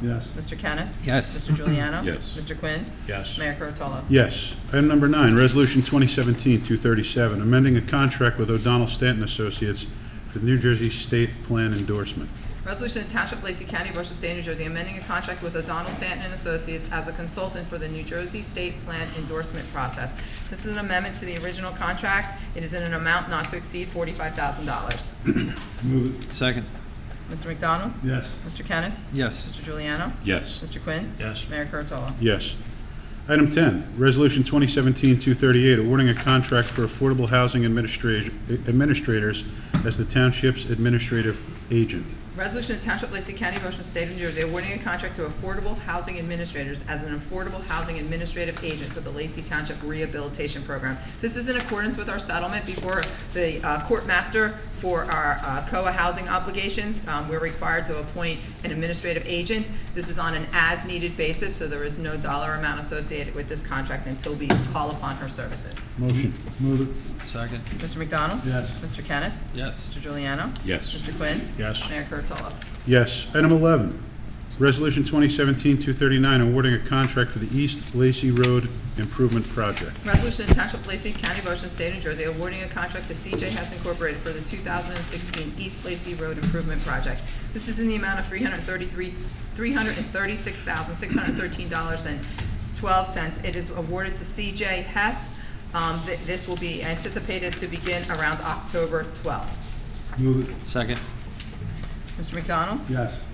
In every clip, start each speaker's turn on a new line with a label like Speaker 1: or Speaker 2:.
Speaker 1: Yes.
Speaker 2: Mr. Kennis?
Speaker 3: Yes.
Speaker 2: Mr. Juliano?
Speaker 4: Yes.
Speaker 2: Mr. Quinn?
Speaker 4: Yes.
Speaker 2: Mayor Kurtolo?
Speaker 1: Yes. Item number nine, Resolution 2017-237, amending a contract with O'Donnell Stanton Associates for the New Jersey State Plan endorsement.
Speaker 2: Resolution to Township of Lacey County, Ocean State, New Jersey, amending a contract with O'Donnell Stanton and Associates as a consultant for the New Jersey State Plan endorsement process. This is an amendment to the original contract. It is in an amount not to exceed forty-five thousand dollars.
Speaker 1: Move it.
Speaker 3: Second.
Speaker 2: Mr. McDonald?
Speaker 1: Yes.
Speaker 2: Mr. Kennis?
Speaker 3: Yes.
Speaker 2: Mr. Juliano?
Speaker 4: Yes.
Speaker 2: Mr. Quinn?
Speaker 4: Yes.
Speaker 2: Mayor Kurtolo?
Speaker 1: Yes. Item 10, Resolution 2017-238, awarding a contract for affordable housing administrat- administrators as the township's administrative agent.
Speaker 2: Resolution of Township of Lacey County, Motion State of New Jersey, awarding a contract to Affordable Housing Administrators as an Affordable Housing Administrative Agent for the Lacey Township Rehabilitation Program. This is in accordance with our settlement before the uh, court master for our uh, COA housing obligations. Um, We're required to appoint an administrative agent. This is on an as-needed basis, so there is no dollar amount associated with this contract until we call upon her services.
Speaker 1: Motion. Move it.
Speaker 3: Second.
Speaker 2: Mr. McDonald?
Speaker 1: Yes.
Speaker 2: Mr. Kennis?
Speaker 3: Yes.
Speaker 2: Mr. Juliano?
Speaker 4: Yes.
Speaker 2: Mr. Quinn?
Speaker 1: Yes.
Speaker 2: Mayor Kurtolo?
Speaker 1: Yes. Item 11, Resolution 2017-239, awarding a contract for the East Lacey Road Improvement Project.
Speaker 2: Resolution to Township of Lacey County, Ocean State, New Jersey, awarding a contract to CJ Hess Incorporated for the 2016 East Lacey Road Improvement Project. This is in the amount of $333 $336,613.12. It is awarded to CJ Hess. Um, th- This will be anticipated to begin around October 12th.
Speaker 1: Move it.
Speaker 3: Second.
Speaker 2: Mr. McDonald?
Speaker 1: Yes.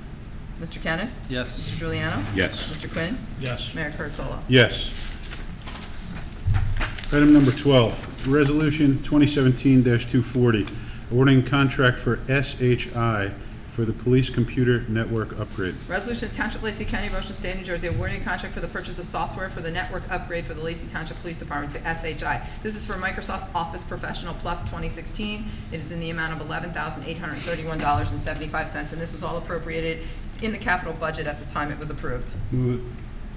Speaker 2: Mr. Kennis?
Speaker 3: Yes.
Speaker 2: Mr. Juliano?
Speaker 4: Yes.
Speaker 2: Mr. Quinn?
Speaker 4: Yes.
Speaker 2: Mayor Kurtolo?
Speaker 1: Yes. Item number 12, Resolution 2017-240, awarding contract for SHI for the Police Computer Network Upgrade.
Speaker 2: Resolution of Township of Lacey County, Ocean State, New Jersey, awarding a contract for the purchase of software for the network upgrade for the Lacey Township Police Department to SHI. This is for Microsoft Office Professional Plus 2016. It is in the amount of $11,831.75, and this was all appropriated in the capital budget at the time it was approved.
Speaker 4: Move it.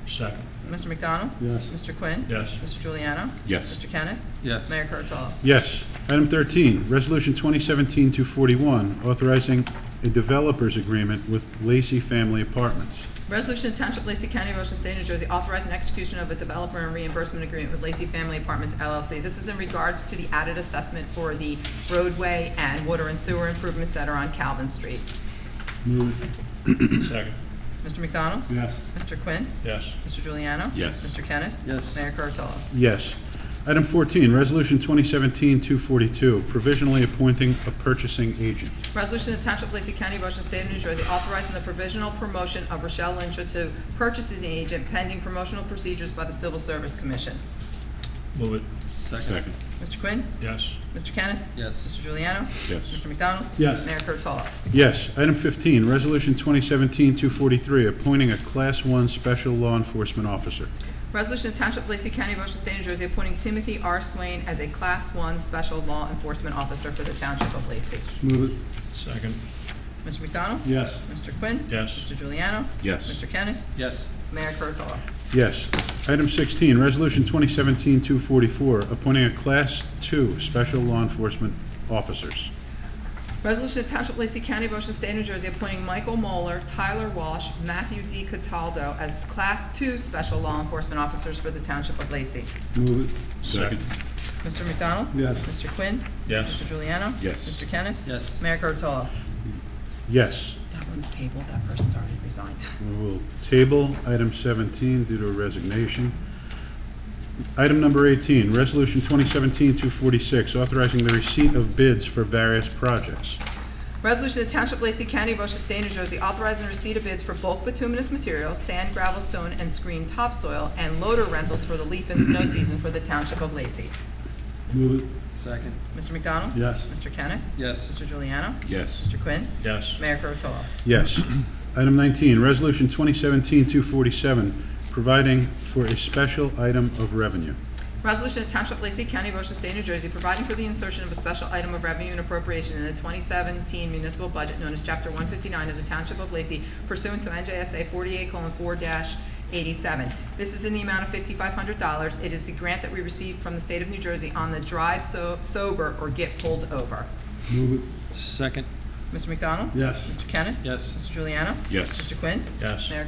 Speaker 4: Second.
Speaker 2: Mr. McDonald?
Speaker 1: Yes.
Speaker 2: Mr. Quinn?
Speaker 4: Yes.
Speaker 2: Mr. Juliano?
Speaker 4: Yes.
Speaker 2: Mr. Kennis?
Speaker 3: Yes.
Speaker 2: Mayor Kurtolo?
Speaker 1: Yes. Item 13, Resolution 2017-241, authorizing a developers agreement with Lacey Family Apartments.
Speaker 2: Resolution to Township of Lacey County, Ocean State, New Jersey, authorizing execution of a developer and reimbursement agreement with Lacey Family Apartments LLC. This is in regards to the added assessment for the roadway and water and sewer improvements that are on Calvin Street.
Speaker 4: Second.
Speaker 2: Mr. McDonald?
Speaker 1: Yes.
Speaker 2: Mr. Quinn?
Speaker 4: Yes.
Speaker 2: Mr. Juliano?
Speaker 4: Yes.
Speaker 2: Mr. Kennis?
Speaker 3: Yes.
Speaker 2: Mayor Kurtolo?
Speaker 1: Yes. Item 14, Resolution 2017-242, provisionally appointing a purchasing agent.
Speaker 2: Resolution to Township of Lacey County, Ocean State of New Jersey, authorizing the provisional promotion of Rochelle Lynch to purchasing agent pending promotional procedures by the Civil Service Commission.
Speaker 4: Move it.
Speaker 3: Second.
Speaker 2: Mr. Quinn?
Speaker 4: Yes.
Speaker 2: Mr. Kennis?
Speaker 3: Yes.
Speaker 2: Mr. Juliano?
Speaker 4: Yes.
Speaker 2: Mr. McDonald?
Speaker 1: Yes.
Speaker 2: Mayor Kurtolo?
Speaker 1: Yes. Item 15, Resolution 2017-243, appointing a Class 1 Special Law Enforcement Officer.
Speaker 2: Resolution of Township of Lacey County, Ocean State, New Jersey, appointing Timothy R. Swain as a Class 1 Special Law Enforcement Officer for the Township of Lacey.
Speaker 1: Move it.
Speaker 4: Second.
Speaker 2: Mr. McDonald?
Speaker 1: Yes.
Speaker 2: Mr. Quinn?
Speaker 4: Yes.
Speaker 2: Mr. Juliano?
Speaker 4: Yes.
Speaker 2: Mr. Kennis?
Speaker 3: Yes.
Speaker 2: Mayor Kurtolo?
Speaker 1: Yes. Item 16, Resolution 2017-244, appointing a Class 2 Special Law Enforcement Officers.
Speaker 2: Resolution of Township of Lacey County, Ocean State, New Jersey, appointing Michael Moeller, Tyler Walsh, Matthew D. Cataldo as Class 2 Special Law Enforcement Officers for the Township of Lacey.
Speaker 1: Move it.
Speaker 4: Second.
Speaker 2: Mr. McDonald?
Speaker 1: Yes.
Speaker 2: Mr. Quinn?
Speaker 4: Yes.
Speaker 2: Mr. Juliano?
Speaker 4: Yes.
Speaker 2: Mr. Kennis?
Speaker 3: Yes.
Speaker 2: Mayor Kurtolo?
Speaker 1: Yes.
Speaker 2: That one's tabled. That person's already resigned.
Speaker 1: We will table item 17 due to resignation. Item number 18, Resolution 2017-246, authorizing the receipt of bids for various projects.
Speaker 2: Resolution to Township of Lacey County, Ocean State, New Jersey, authorizing the receipt of bids for bulk bituminous material, sand, gravel, stone, and screen topsoil, and loader rentals for the leaf and snow season for the Township of Lacey.
Speaker 1: Move it.
Speaker 3: Second.
Speaker 2: Mr. McDonald?
Speaker 1: Yes.
Speaker 2: Mr. Kennis?
Speaker 3: Yes.
Speaker 2: Mr. Juliano?
Speaker 4: Yes.
Speaker 2: Mr. Quinn?
Speaker 4: Yes.
Speaker 2: Mayor Kurtolo?
Speaker 1: Yes. Item 19, Resolution 2017-247, providing for a special item of revenue.
Speaker 2: Resolution to Township of Lacey County, Ocean State, New Jersey, providing for the insertion of a special item of revenue and appropriation in the 2017 municipal budget known as Chapter 159 of the Township of Lacey pursuant to NJSA 48:4-87. This is in the amount of $5,500. It is the grant that we received from the state of New Jersey on the drive so- sober or get pulled over.
Speaker 3: Second.
Speaker 2: Mr. McDonald?
Speaker 1: Yes.
Speaker 2: Mr. Kennis?
Speaker 3: Yes.
Speaker 2: Mr. Juliano?
Speaker 4: Yes.
Speaker 2: Mr. Quinn?
Speaker 4: Yes.
Speaker 2: Mayor